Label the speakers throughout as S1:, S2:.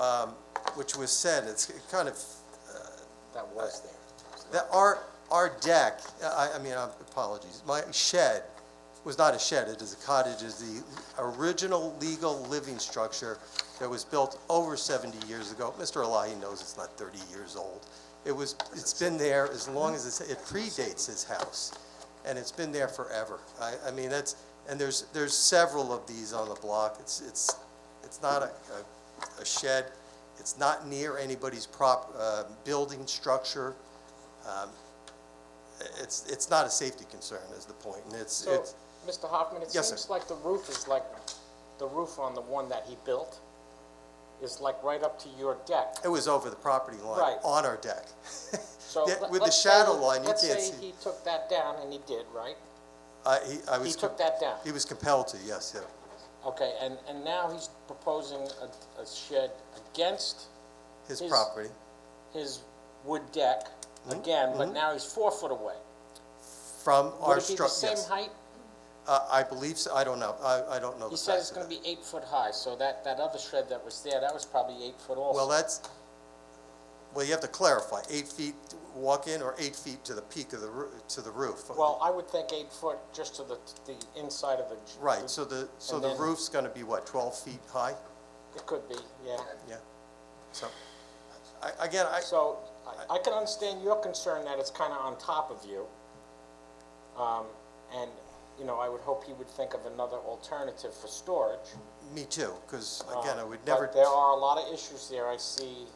S1: um, which was said, it's kind of,
S2: That was there.
S1: that our, our deck, I, I mean, apologies, my shed was not a shed, it is a cottage, is the original legal living structure that was built over 70 years ago. Mr. Elahi knows it's not 30 years old. It was, it's been there as long as, it's- it predates his house, and it's been there forever. I, I mean, that's, and there's, there's several of these on the block. It's, it's, it's not a, a- a shed, it's not near anybody's prop, uh, building structure it's, it's not a safety concern is the point, and it's,
S2: So,
S1: it's,
S2: Mr. Hoffman, it
S1: Yes,
S2: seems
S1: sir.
S2: like the roof is like, the roof on the one that he built is like right up to your deck.
S1: it was over the property line,
S2: Right.
S1: on our deck.
S2: So
S1: Yeah,
S2: let-
S1: with the
S2: let's say-
S1: shadow line, you can't
S2: Let's say
S1: see.
S2: he took that down, and he did, right?
S1: I, he, I
S2: He
S1: was,
S2: took that down.
S1: he was compelled to, yes, yeah.
S2: Okay, and, and now he's proposing a, a shed against
S1: His
S2: His-
S1: property,
S2: his wood deck
S1: Mm-hmm,
S2: again, but now he's four foot away.
S1: from
S2: Would
S1: our
S2: it be the
S1: structure.
S2: same height?
S1: Uh, I believe so, I don't know, I, I don't know the
S2: He said
S1: facts
S2: it's
S1: of
S2: gonna
S1: that.
S2: be eight foot high, so that, that other shed that was there, that was probably eight foot also.
S1: Well, that's, well, you have to clarify, eight feet walk-in or eight feet to the peak of the, roo- to the roof?
S2: Well, I would think eight foot just to the, the inside of the.
S1: Right, so the, so
S2: and
S1: the
S2: then-
S1: roof's gonna be what, twelve feet high?
S2: It could be, yeah.
S1: Yeah, so, I, again, I,
S2: So I- I can understand your concern that it's kind of on top of you. Um, And, you know, I would hope he would think of another alternative for storage.
S1: me too, because again, I would
S2: Uh, But
S1: never.
S2: there are a lot of issues there. I see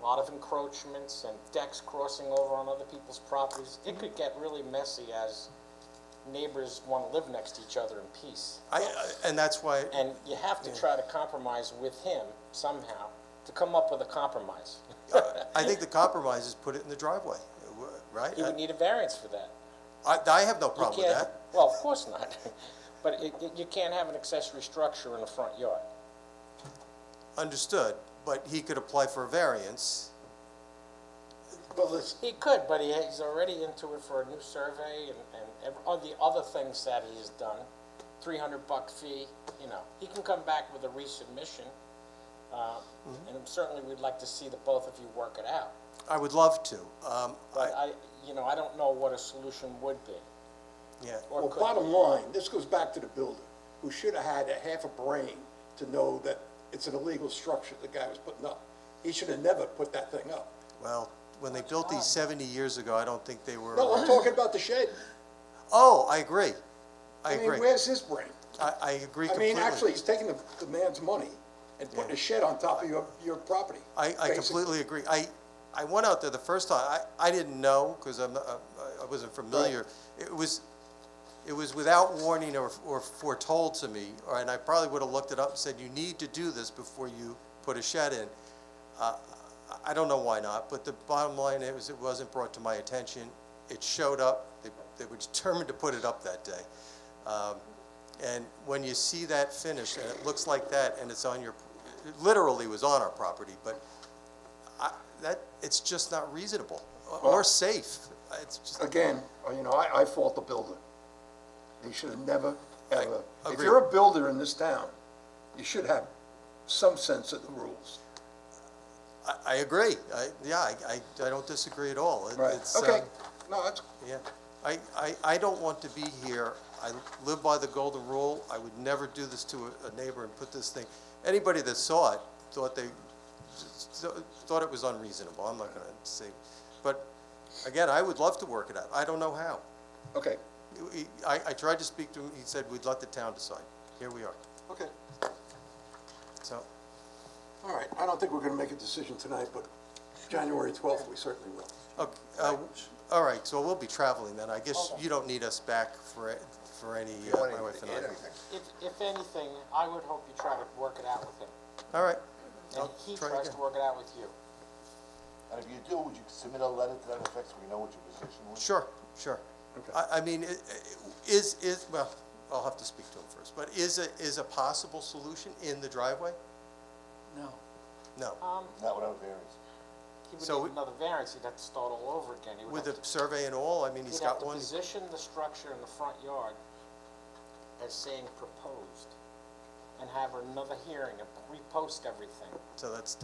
S2: a lot of encroachments and decks crossing over on other people's properties. It could get really messy as neighbors want to live next to each other in peace.
S1: I, I- and that's why,
S2: And you have to try to compromise with him somehow to come up with a compromise.
S1: uh, I think the compromise is put it in the driveway, right?
S2: He would need a variance for that.
S1: I, I have no
S2: You
S1: problem with
S2: can't-
S1: that.
S2: Well, of course not. But it, it- you can't have an accessory structure in the front yard.
S1: Understood, but he could apply for a variance.
S2: He could, but he, he's already into it for a new survey and, and ev- all the other things that he's done. Three hundred buck fee, you know, he can come back with a resubmission. uh,
S1: Mm-hmm.
S2: And certainly we'd like to see the both of you work it out.
S1: I would love to. Um,
S2: But
S1: I,
S2: I, you know, I don't know what a solution would be.
S1: yeah,
S2: or
S3: Well,
S2: could-
S3: bottom line, this goes back to the builder, who should have had a half a brain to know that it's an illegal structure the guy was putting up. He should have never put that thing up.
S1: well, when they built these seventy years ago, I don't think they were.
S3: No, I'm talking about the shed.
S1: Oh, I agree. I
S3: I mean,
S1: agree.
S3: where's his brain?
S1: I, I agree
S3: I mean,
S1: completely.
S3: actually, he's taking the, the man's money and putting a shed on top of your, your property.
S1: I, I
S3: basically.
S1: completely agree. I, I went out there the first time, I, I didn't know, because I'm, not- I I wasn't familiar. It was, it was without warning or, or foretold to me, or, and I probably would have looked it up and said, you need to do this before you put a shed in. Uh, I- I don't know why not, but the bottom line is, it wasn't brought to my attention. It showed up, they, they were determined to put it up that day. Um, And when you see that finish, and it looks like that, and it's on your, it literally was on our property, but I, that, it's just not reasonable or- or safe. It's just,
S3: Again, uh, you know, I, I fault the builder. He should have never, ever, if
S1: agree.
S3: you're a builder in this town, you should have some sense of the rules.
S1: I, I agree. I, yeah, I, I, I don't disagree at all. It-
S3: Right,
S1: it's,
S3: okay,
S1: um,
S3: no, that's,
S1: Yeah, I, I, I don't want to be here, I live by the golden rule, I would never do this to a- a neighbor and put this thing, anybody that saw it thought they, thought it was unreasonable, I'm not gonna say, but again, I would love to work it out, I don't know how.
S3: okay,
S1: He- I, I tried to speak to him, he said, we'd let the town decide, here we are,
S3: okay,
S1: so,
S3: all right, I don't think we're gonna make a decision tonight, but January twelfth, we certainly will.
S1: okay, uh, all right, so we'll be traveling then, I guess you don't need us back for, for any, uh, my wife and I.
S2: If, if anything, I would hope you try to work it out with him.
S1: All right,
S2: And
S1: I'll
S2: he
S1: try
S2: tries
S1: again.
S2: to work it out with you.
S4: And if you do, would you submit a letter to that effect so we know what your position was?
S1: Sure, sure. I, I mean, i- i- is, is, well, I'll have to speak to him first, but is a, is a possible solution in the driveway?
S3: No.
S1: No.
S2: Um,
S4: Not without variance.
S2: He
S1: So
S2: would
S1: we-
S2: need another variance, he'd have to start all over again. He would
S1: With
S2: have
S1: the
S2: to-
S1: survey and all, I mean, he's
S2: He'd have
S1: got
S2: to
S1: one,
S2: position the structure in the front yard as saying proposed, and have another hearing, and repost everything.
S1: so that's